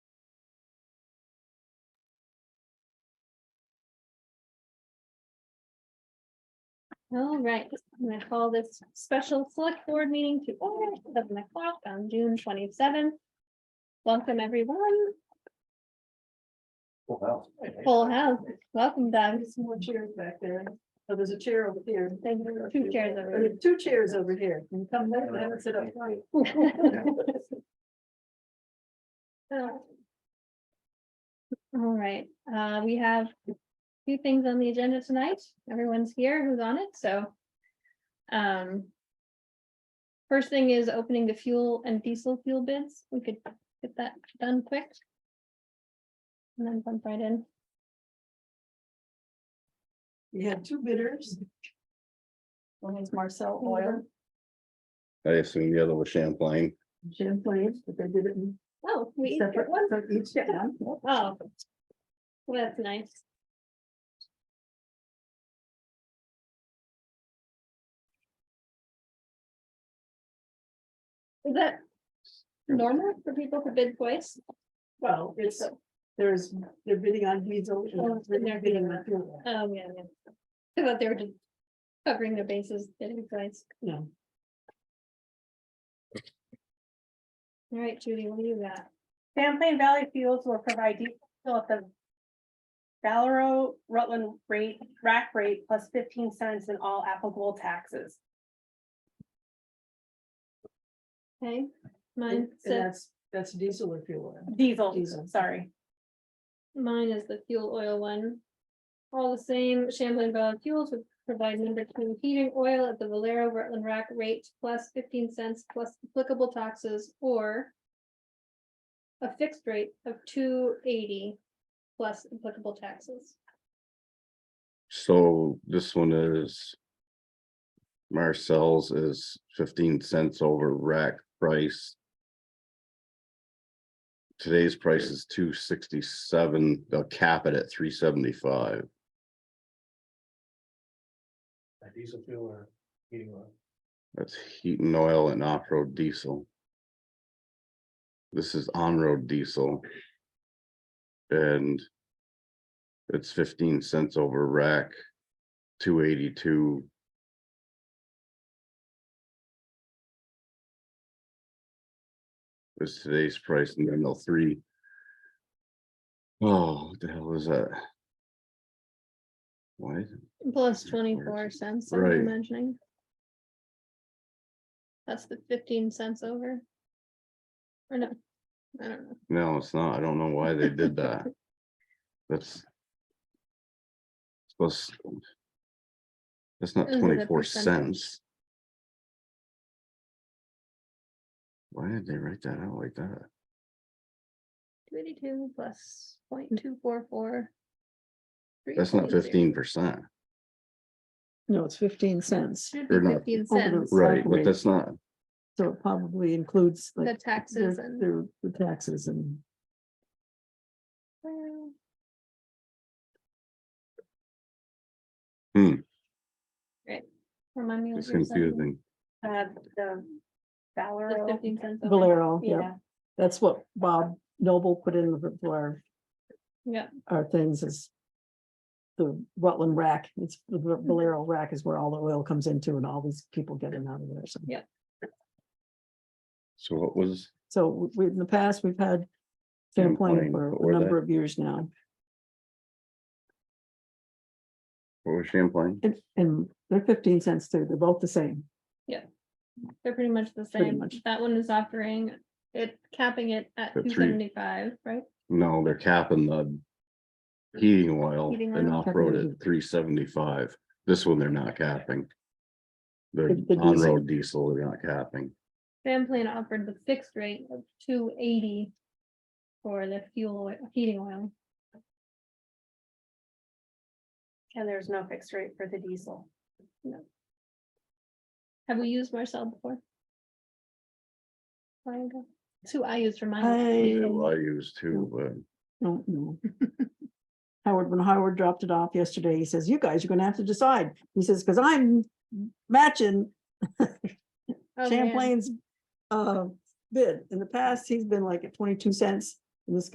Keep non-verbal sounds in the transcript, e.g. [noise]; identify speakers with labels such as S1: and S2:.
S1: All right, I'm gonna call this special select board meeting to order at seven o'clock on June twenty-seventh. Welcome, everyone.
S2: Wow.
S1: Full house. Welcome, Doug.
S3: There's some more chairs back there. Oh, there's a chair over here.
S1: Thank you. Two chairs over
S3: Or Two chairs over here. You come there, I would sit up front.
S1: [laughs] All right, uh, we have a few things on the agenda tonight. Everyone's here who's on it, so. Um. First thing is opening the fuel and diesel fuel bids. We could get that done quick. And then bump right in.
S3: We had two bidders. One is Marcel Oil,
S4: I assume the other was Champlain.
S3: Champlain, but they did it in
S1: Oh, we, each
S3: separate
S1: get one.
S3: ones on each. town.
S1: Oh. Well, that's nice. Is that normal for people to bid twice?
S3: Well, it's, there's, they're bidding on diesel.
S1: Oh,
S3: and
S1: they're
S3: They're
S1: bidding
S3: bidding
S1: on-
S3: on fuel.
S1: Oh, yeah, yeah. I thought they were just covering their bases, bidding twice.
S3: No,
S1: All right, Judy, what do you got?
S5: Champlain Valley Fuels will provide diesel fuel at the Valero Rutland rate, rack rate plus fifteen cents in all applicable taxes.
S1: Okay,
S3: and
S1: mine
S3: and
S1: says,
S3: that's, that's diesel or fuel. oil.
S5: Diesel,
S3: Diesel.
S5: sorry.
S1: mine is the fuel oil one. All the same, Champlain Valley Fuels would provide number two heating oil at the Valero Rutland Rack rate plus fifteen cents plus applicable taxes or a fixed rate of two eighty plus applicable taxes.
S4: So this one is. Marcel's is fifteen cents over rack price. Today's price is two sixty-seven, they'll cap it at three seventy-five.
S2: A Diesel fuel or heating oil.
S4: That's heat and oil and off-road diesel. This is on-road diesel. And. It's fifteen cents over rack. Two eighty-two. Is today's price and then they'll three. Oh, what the hell is that? Why is it?
S1: Plus twenty-four cents, I'm
S4: Right.
S1: imagining. That's the fifteen cents over. Or no, I don't know.
S4: No, it's not. I don't know why they did that. That's. Supposed. That's not
S1: Those are the
S4: twenty-four
S1: percentage.
S4: cents. Why did they write that out like that?
S1: Two eighty-two plus point
S6: Mm.
S1: two four four.
S4: That's not fifteen percent,
S6: No, it's fifteen cents.
S1: Should be
S4: They're not-
S1: fifteen
S6: Over the-
S1: cents,
S4: right, but
S6: Right.
S4: that's not,
S6: So it probably includes
S1: the
S6: like
S1: taxes
S6: their,
S1: and.
S6: their- the taxes and
S1: Well,
S4: Hmm.
S1: Right. Remind me. what
S4: it's
S1: you were saying.
S4: confusing.
S5: Uh, the
S1: The
S5: Valero,
S1: Fifteen cents. over.
S6: Valero, yeah,
S5: yeah,
S6: that's what Bob Noble put in the- for our,
S1: Yeah,
S6: our things is. The Rutland rack, it's the Va- Valero rack is where all the oil comes into and all these people get in out of there, so.
S1: Yeah.
S4: So what was,
S6: So we- we, in the past, we've had Champlain
S4: Champlain
S6: for
S4: before
S6: a number
S4: that.
S6: of years now,
S4: what was Champlain?
S6: and, and they're fifteen cents too, they're both the same.
S1: they're pretty much the
S6: Pretty
S1: same.
S6: much.
S1: That one is offering it, capping it at
S4: At
S1: two
S4: three.
S1: seventy-five, right?
S4: No, they're capping the. Heating oil
S1: Heating
S4: and
S1: oil.
S4: off-road at three seventy-five. This one they're not capping. They're
S6: The- the diesel.
S4: on-road diesel, they're not capping.
S1: Champlain offered the fixed rate of two eighty for the fuel, oil- heating oil.
S5: and there's no fixed rate for the diesel.
S1: Have we used Marcel before? Long ago. It's who I used for mine.
S4: Yeah,
S6: I
S4: well, I use too, but
S1: [laughs]
S6: don't know. Howard, when Howard dropped it off yesterday, he says, you guys are gonna have to decide. He says, because I'm matching
S1: Oh, man.
S6: Champlain's uh bid. In the past, he's been like at twenty-two cents. And this